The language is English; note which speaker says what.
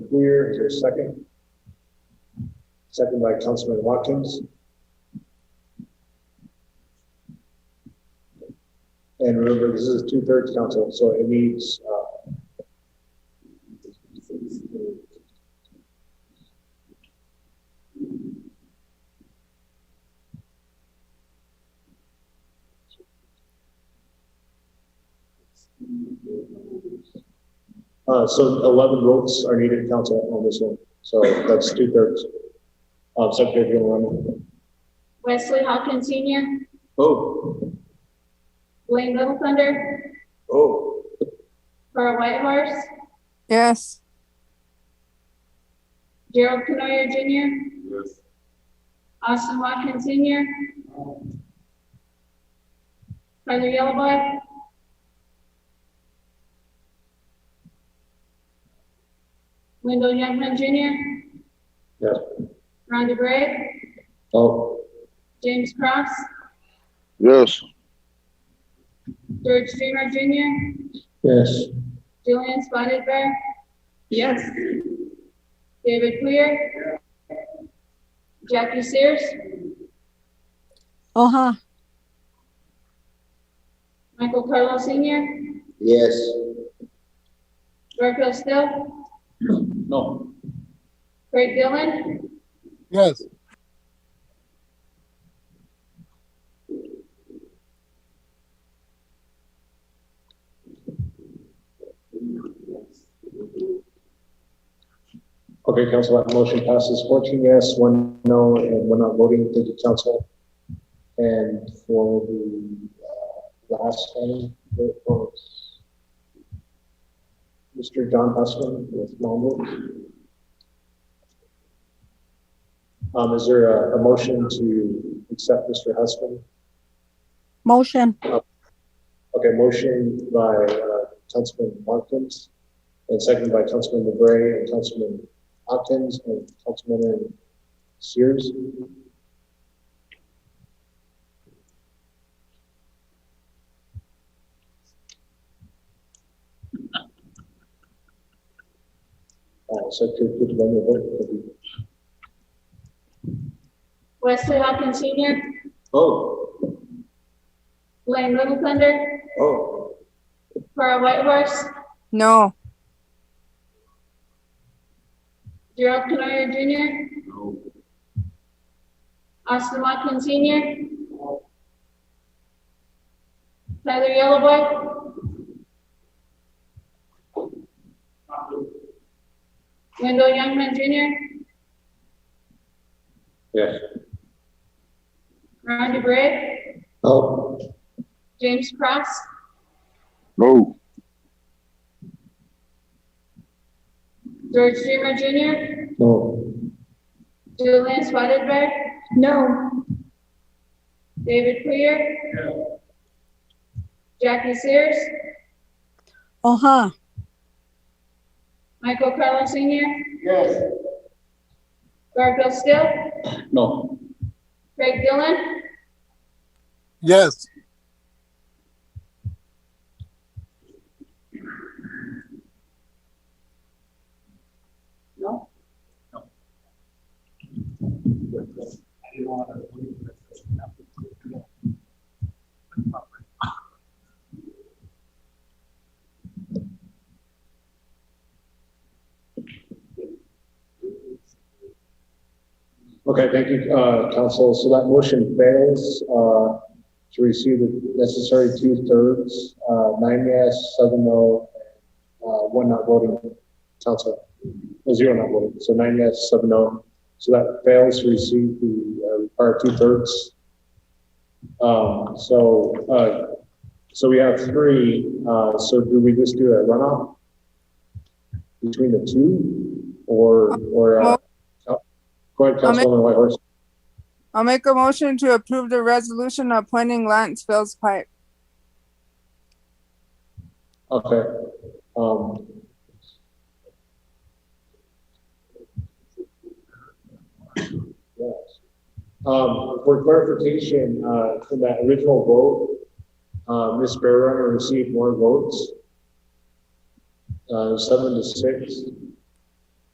Speaker 1: Clear, is there a second? Second by Councilman Watkins. And remember, this is two-thirds council, so it needs, uh, uh, so eleven votes are needed, council, on this one, so that's two-thirds. Uh, Secretary, if you want to.
Speaker 2: Wesley Hawkins Senior,
Speaker 1: Oh,
Speaker 2: Blaine Little Thunder,
Speaker 1: oh.
Speaker 2: Carl Whitehorse,
Speaker 3: Yes.
Speaker 2: Gerald Canoyer Junior,
Speaker 1: Yes.
Speaker 2: Austin Watkins Senior, Tyler Yellowboy, Wendell Youngman Junior,
Speaker 1: Yes.
Speaker 2: Rhonda Gray,
Speaker 1: Oh.
Speaker 2: James Cross,
Speaker 4: Yes.
Speaker 2: George Dreamer Junior,
Speaker 1: Yes.
Speaker 2: Julian Spotted Bear? Yes. David Clear? Jackie Sears?
Speaker 3: Uh huh.
Speaker 2: Michael Carlo Senior?
Speaker 1: Yes.
Speaker 2: Garfield Still?
Speaker 1: No.
Speaker 2: Craig Dillon?
Speaker 4: Yes.
Speaker 1: Okay, council, that motion passes fourteen yes, one no, and we're not voting. Thank you, council. And for the, uh, last one, it was Mr. John Hussman with Longwood. Um, is there a, a motion to accept Mr. Hussman?
Speaker 3: Motion.
Speaker 1: Okay, motion by uh, Councilman Watkins, and second by Councilman LeBray, and Councilman Hopkins, and Councilman Sears. Uh, Secretary, could you run the vote?
Speaker 2: Wesley Hawkins Senior?
Speaker 1: Oh,
Speaker 2: Blaine Little Thunder?
Speaker 1: oh.
Speaker 2: Carl Whitehorse?
Speaker 3: No.
Speaker 2: Gerald Canoyer Junior? Austin Watkins Senior? Tyler Yellowboy? Wendell Youngman Junior?
Speaker 1: Yes.
Speaker 2: Ron DeBrey,
Speaker 1: Oh.
Speaker 2: James Cross,
Speaker 4: No.
Speaker 2: George Dreamer Jr.,
Speaker 1: No.
Speaker 2: Julian Spotted Bear? No. David Poyer? Jackie Sears,
Speaker 3: Uh huh.
Speaker 2: Michael Carlo Senior? Yes. Garfield Still,
Speaker 1: No.
Speaker 2: Craig Dillon,
Speaker 4: Yes.
Speaker 1: Okay, thank you, uh, council. So that motion fails, uh, to receive the necessary two-thirds, uh, nine yes, seven no, uh, one not voting, council, uh, zero not voting. So nine yes, seven no. So that fails to receive the, uh, required two-thirds. Um, so, uh, so we have three, uh, so do we just do a runoff between the two? Or, or, uh, go ahead,
Speaker 3: I'll make-
Speaker 1: Councilwoman Whitehorse.
Speaker 3: I'll make a motion to approve the resolution appointing Lance Phil's Pike.
Speaker 1: Okay, um. yes. Um, for clarification, uh, from that original vote, uh, Ms. Bearrunner received more votes. Uh, seven to six.